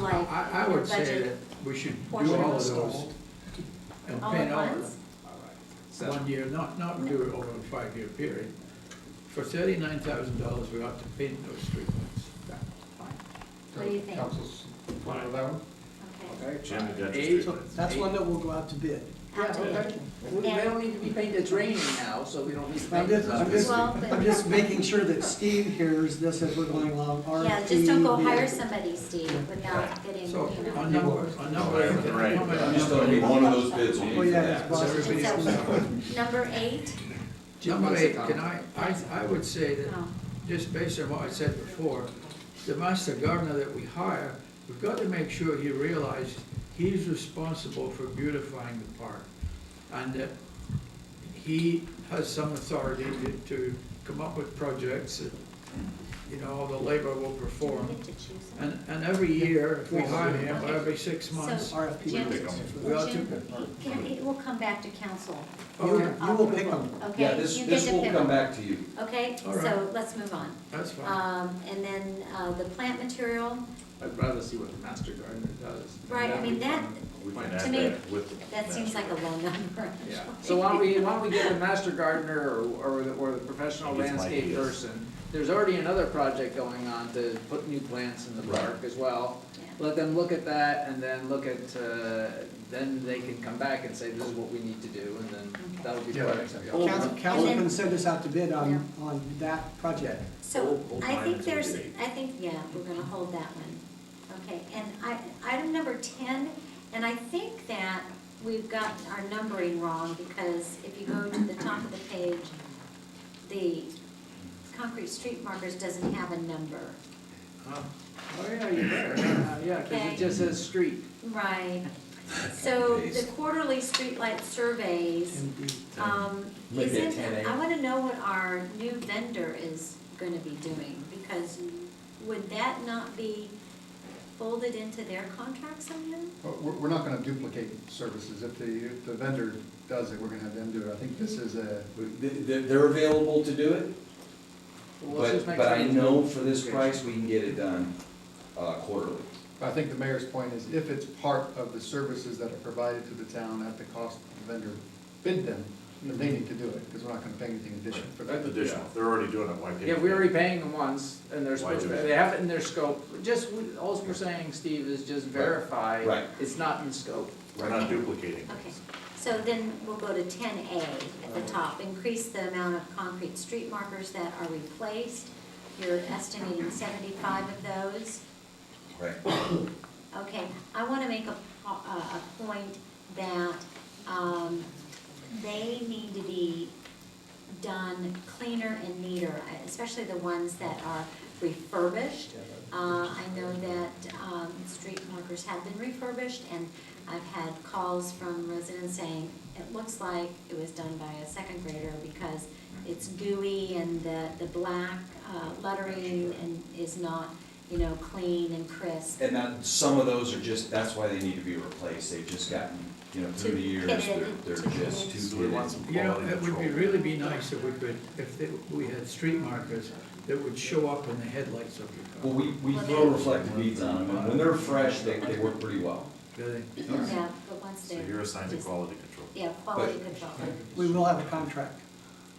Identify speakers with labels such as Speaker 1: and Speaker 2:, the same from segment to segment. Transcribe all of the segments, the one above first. Speaker 1: like.
Speaker 2: I, I would say
Speaker 1: budget
Speaker 2: that we should do
Speaker 1: portion
Speaker 2: all
Speaker 1: was
Speaker 2: of those
Speaker 1: sold.
Speaker 2: and
Speaker 1: All
Speaker 2: pay
Speaker 1: at
Speaker 2: all of
Speaker 1: once?
Speaker 2: them. One year, not, not do it over a five-year period. For thirty-nine thousand dollars, we ought to paint those streetlights.
Speaker 1: What do you think?
Speaker 3: Council's fine with that one?
Speaker 1: Okay.
Speaker 4: Okay.
Speaker 5: Jim, you got the
Speaker 2: Eight.
Speaker 4: So
Speaker 5: streetlights.
Speaker 4: that's one that will go out to bid.
Speaker 1: Out to
Speaker 4: Yeah.
Speaker 1: bid.
Speaker 6: We- They don't need to be painted, it's raining now, so we don't need to
Speaker 4: I'm
Speaker 6: paint
Speaker 4: just,
Speaker 6: it.
Speaker 4: I'm just,
Speaker 1: Well, but-
Speaker 4: I'm just making sure that Steve hears this as we're going along.
Speaker 1: Yeah, just don't go
Speaker 4: RFP.
Speaker 1: hire somebody, Steve, without getting, you
Speaker 2: So,
Speaker 1: know.
Speaker 2: a number, a number.
Speaker 5: Right.
Speaker 2: how many
Speaker 7: You still need
Speaker 2: numbers?
Speaker 7: one of those bids, you need
Speaker 4: Oh,
Speaker 7: for
Speaker 4: yeah, that's
Speaker 7: that.
Speaker 2: Is
Speaker 4: possible.
Speaker 2: everybody-
Speaker 1: Number eight?
Speaker 2: Number eight, can I, I, I would say that,
Speaker 1: No.
Speaker 2: just based on what I said before, the master gardener that we hire, we've got to make sure he realizes he's responsible for beautifying the park. And that he has some authority to, to come up with projects that, you know, the labor will
Speaker 1: Do we
Speaker 2: perform.
Speaker 1: get to choose them?
Speaker 2: And, and every year, if we hire him,
Speaker 1: Okay.
Speaker 2: every six months,
Speaker 1: So-
Speaker 4: RFP.
Speaker 1: Jim-
Speaker 2: We all
Speaker 1: Jim,
Speaker 2: took it.
Speaker 1: it can- It will come back to council.
Speaker 4: You, you will pick
Speaker 1: Approval.
Speaker 4: them.
Speaker 7: Yeah,
Speaker 1: Okay,
Speaker 7: this,
Speaker 1: you get
Speaker 7: this
Speaker 1: to
Speaker 7: will
Speaker 1: pick
Speaker 7: come
Speaker 1: them.
Speaker 7: back to you.
Speaker 1: Okay,
Speaker 2: All right.
Speaker 1: so let's move on.
Speaker 2: that's fine.
Speaker 1: Um, and then, uh, the plant material,
Speaker 6: I'd rather see what the master gardener does.
Speaker 1: Right, I mean, that-
Speaker 5: We can
Speaker 6: Fine.
Speaker 5: add
Speaker 1: To me,
Speaker 5: that with. the
Speaker 1: that seems like a low number.
Speaker 6: Yeah,
Speaker 1: actually.
Speaker 6: so why don't we, why don't we get the master gardener or, or the, or the professional
Speaker 5: It's my
Speaker 6: landscape
Speaker 5: ideas.
Speaker 6: person? There's already another project going on to put new plants in the
Speaker 7: Right.
Speaker 6: park as well.
Speaker 1: Yeah.
Speaker 6: Let them look at that and then look at, uh, then they can come back and say, this is what we need to do, and then that'll be
Speaker 3: Yeah,
Speaker 6: part
Speaker 3: that makes
Speaker 6: of
Speaker 3: sense.
Speaker 6: it.
Speaker 3: Well,
Speaker 4: Council, council can send us out to bid on, on that project.
Speaker 1: So
Speaker 5: Old- old
Speaker 1: I think
Speaker 5: diamonds would
Speaker 1: there's,
Speaker 5: be-
Speaker 1: I think, yeah, we're gonna hold that one. Okay, and I, item number ten, and I think that we've got our numbering wrong because if you go to the top of the page, the concrete street markers doesn't have a number.
Speaker 6: Oh, yeah, you're there, Uh, yeah, cause
Speaker 1: Okay.
Speaker 6: it just says street.
Speaker 1: Right. So the quarterly streetlight surveys,
Speaker 4: And be-
Speaker 1: um,
Speaker 7: Maybe at
Speaker 1: isn't,
Speaker 7: 10.
Speaker 1: I wanna know what our new vendor is gonna be doing because would that not be folded into their contract somehow?
Speaker 3: But we're, we're not gonna duplicate services. If the, if the vendor does it, we're gonna have them do it. I think this is a,
Speaker 7: They're, they're available to do it,
Speaker 6: Well, let's
Speaker 7: but,
Speaker 6: just make
Speaker 7: but
Speaker 6: sure
Speaker 7: I
Speaker 6: there's
Speaker 7: know
Speaker 6: no-
Speaker 7: for this
Speaker 6: Okay.
Speaker 7: price, we can get it done uh, quarterly.
Speaker 3: I think the mayor's point is if it's part of the services that are provided to the town at the cost the vendor bid them, then they need to do it, because we're not gonna pay anything additional for that.
Speaker 5: Additional, they're already doing it, why pay?
Speaker 6: Yeah,
Speaker 5: for
Speaker 6: we're
Speaker 5: it?
Speaker 6: already paying them once, and they're
Speaker 5: Why
Speaker 6: supposed to,
Speaker 5: do it?
Speaker 6: they have it in their scope, just, we- all we're saying, Steve, is just verify.
Speaker 7: Right.
Speaker 6: It's not in scope.
Speaker 5: We're not duplicating.
Speaker 1: Okay, so then we'll go to ten A at the top, increase the amount of concrete street markers that are replaced. You're estimating seventy-five of those.
Speaker 7: Right.
Speaker 1: Okay, I want to make a, po- a a point that, um, they need to be done cleaner and neater, especially the ones that are refurbished. Uh, I know that, um, street markers have been refurbished, and I've had calls from residents saying, it looks like it was done by a second grader because it's gooey and the, the black, uh, lettering and is not, you know, clean and crisp.
Speaker 7: And that, some of those are just, that's why they need to be replaced, they've just gotten, you know, through the
Speaker 1: Too
Speaker 7: years, they're,
Speaker 1: pitted,
Speaker 7: they're
Speaker 1: too
Speaker 7: just
Speaker 1: pitted.
Speaker 7: too
Speaker 5: So we want
Speaker 7: pitted.
Speaker 5: some
Speaker 2: You know,
Speaker 5: quality
Speaker 2: it would
Speaker 5: control.
Speaker 2: be, really be nice if we could, if they- we had street markers that would show up in the headlights of
Speaker 7: Well,
Speaker 2: your car.
Speaker 7: we, we throw reflective beads on them, and when they're fresh, they, they work pretty well.
Speaker 2: Really?
Speaker 1: Yeah, but once
Speaker 5: So
Speaker 1: they're.
Speaker 5: you're assigned to
Speaker 1: just-
Speaker 5: quality control.
Speaker 1: Yeah, quality control.
Speaker 4: We will have a contract.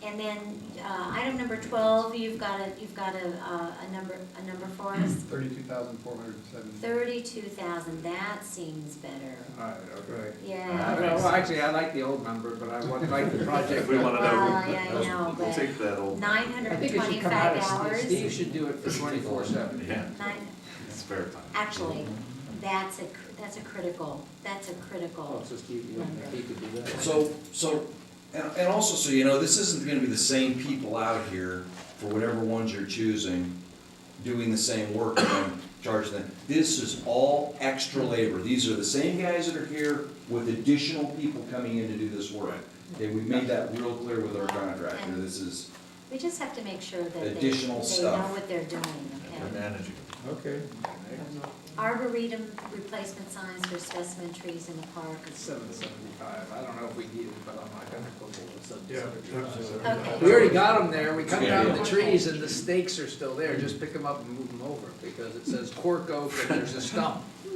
Speaker 1: And then, uh, item number twelve, you've got a, you've got a, uh, a number, a number for us,
Speaker 3: Thirty-two thousand four hundred and seventy.
Speaker 1: thirty-two thousand, that seems better.
Speaker 2: All right, okay.
Speaker 6: Uh,
Speaker 1: Yeah.
Speaker 5: Alright.
Speaker 6: Well, actually, I like the old number, but I would like the project.
Speaker 5: If we wanna
Speaker 1: Well, yeah, I
Speaker 5: know,
Speaker 1: know,
Speaker 5: we'll
Speaker 1: but-
Speaker 5: take that old,
Speaker 1: Nine
Speaker 6: I
Speaker 1: hundred and
Speaker 6: think it should come out
Speaker 1: twenty-five
Speaker 6: of,
Speaker 1: hours.
Speaker 6: Steve- Steve should do it for twenty-four seven.
Speaker 5: yeah,
Speaker 1: Nine,
Speaker 5: spare time.
Speaker 1: actually, that's a, cr- that's a critical, that's a critical.
Speaker 6: Also, Steve, you want to, he could do that.
Speaker 7: So, so, and, and also, so you know, this isn't gonna be the same people out here for whatever ones you're choosing, doing the same work and then charging them. This is all extra labor. These are the same guys that are here with additional people coming in to do this work. Okay, we made that real clear with our contractor. This is,
Speaker 1: We just have to make sure that they, they know
Speaker 7: Additional stuff.
Speaker 1: what they're doing,
Speaker 5: And
Speaker 1: okay?
Speaker 5: we're managing.
Speaker 2: Okay.
Speaker 1: Arboretum replacement signs for specimen trees in the park.
Speaker 6: Seven seventy-five, I don't know if we need it, but I'm not gonna go for seven
Speaker 2: Yeah.
Speaker 6: seventy-five.
Speaker 1: Okay.
Speaker 6: We already got them there, we cut
Speaker 7: Yeah.
Speaker 6: down the trees and the stakes are still there, just pick them up and move them over, because it says cork oak and there's a stump.